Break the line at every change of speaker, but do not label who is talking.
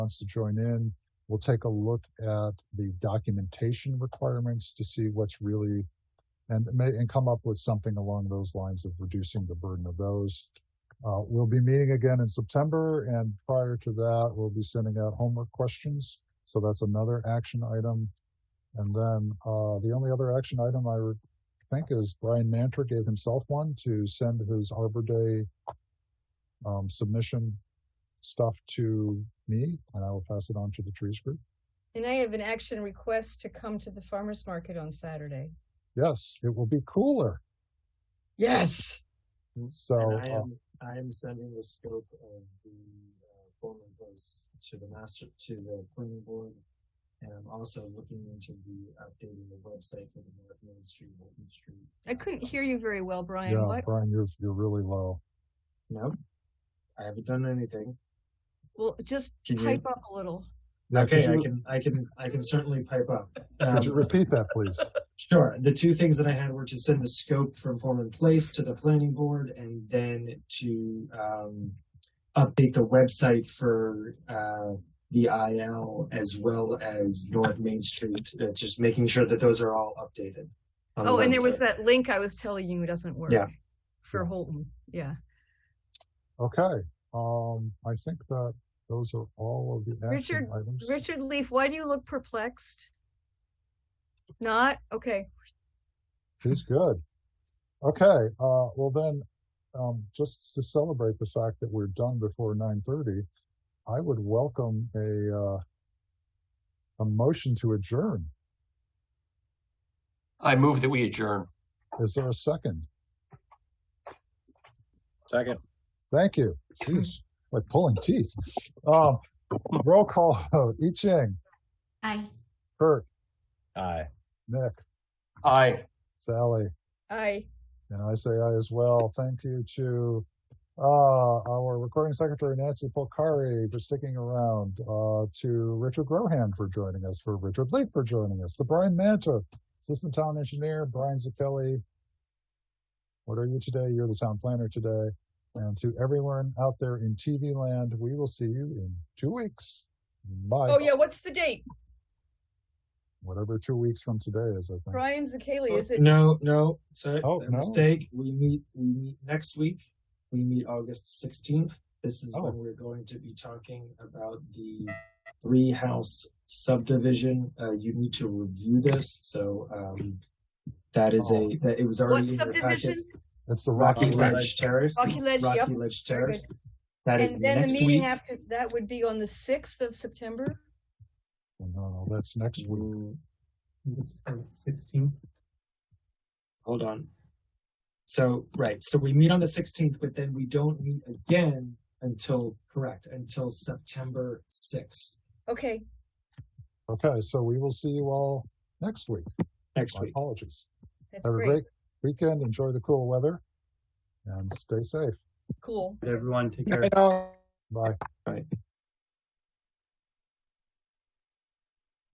wants to join in. We'll take a look at the documentation requirements to see what's really, and may, and come up with something along those lines of reducing the burden of those. Uh, we'll be meeting again in September and prior to that, we'll be sending out homework questions. So that's another action item. And then, uh, the only other action item I re- think is Brian Mantor gave himself one to send his Arbor Day um, submission stuff to me and I will pass it on to the trees group.
And I have an action request to come to the farmer's market on Saturday.
Yes, it will be cooler.
Yes.
So,
And I
uh,
am, I am sending the scope of the uh, Bowman Place to the master, to the planning board. And I'm also looking into the updating the website for the North Main Street, Bolton Street.
I couldn't hear you very well, Brian.
yeah,
What?
Brian, you're, you're really low.
No, I haven't done anything.
Well, just
Can you-
pipe up a little.
Now, could
Okay, I
you-
can, I can, I can certainly pipe up.
Could you
Um,
repeat that, please?
Sure. The two things that I had were to send the scope from form and place to the planning board and then to um, update the website for uh, the IL as well as North Main Street. Uh, just making sure that those are all updated. on the
Oh, and there was
website.
that link I was telling you doesn't work.
Yeah.
For Holton. Yeah.
Okay, um, I think that those are all of the action
Richard,
items.
Richard Leaf, why do you look perplexed? Not? Okay.
He's good. Okay, uh, well then, um, just to celebrate the fact that we're done before nine thirty, I would welcome a, uh, a motion to adjourn.
I move that we adjourn.
Is there a second?
Second.
Thank you. Jeez, like pulling teeth. Um, roll call vote. I Ching,
Aye.
Kurt,
Aye.
Nick,
Aye.
Sally,
I.
and I say aye as well. Thank you to uh, our recording secretary, Nancy Polcari, for sticking around, uh, to Richard Grohan for joining us, for Richard Leak for joining us, to Brian Manta, assistant town engineer, Brian Zakelli. What are you today? You're the town planner today. And to everyone out there in TV land, we will see you in two weeks. Bye.
Oh, yeah. What's the date?
Whatever two weeks from today is, I think.
Brian Zakeli, is it?
No, no. Sorry,
Oh,
a
no.
mistake. We meet. We meet next week. We meet August sixteenth. This is
Oh.
when we're going to be talking about the three house subdivision. Uh, you need to review this. So um, that is
Oh.
a that it was
What
already in your
subdivision?
package.
It's the
Rocky,
Rocky
Ledge,
Ledge.
Terrace.
Rocky Ledge, yep.
Rocky Ledge
Very
Terrace. That is
And then the
next
meeting
week.
after that would be on the 6th of September?
No, no, Oh, that's next week.
Sixteenth. Hold on. So, right, so we meet on the sixteenth, but then we don't meet again until, correct, until September sixth,
Okay.
Okay, so we will see you all next week.
next
My
week.
apologies.
That's
Have a
great.
great weekend. Enjoy the cool weather and stay safe.
Cool.
Everyone, take care.
Bye.
Right.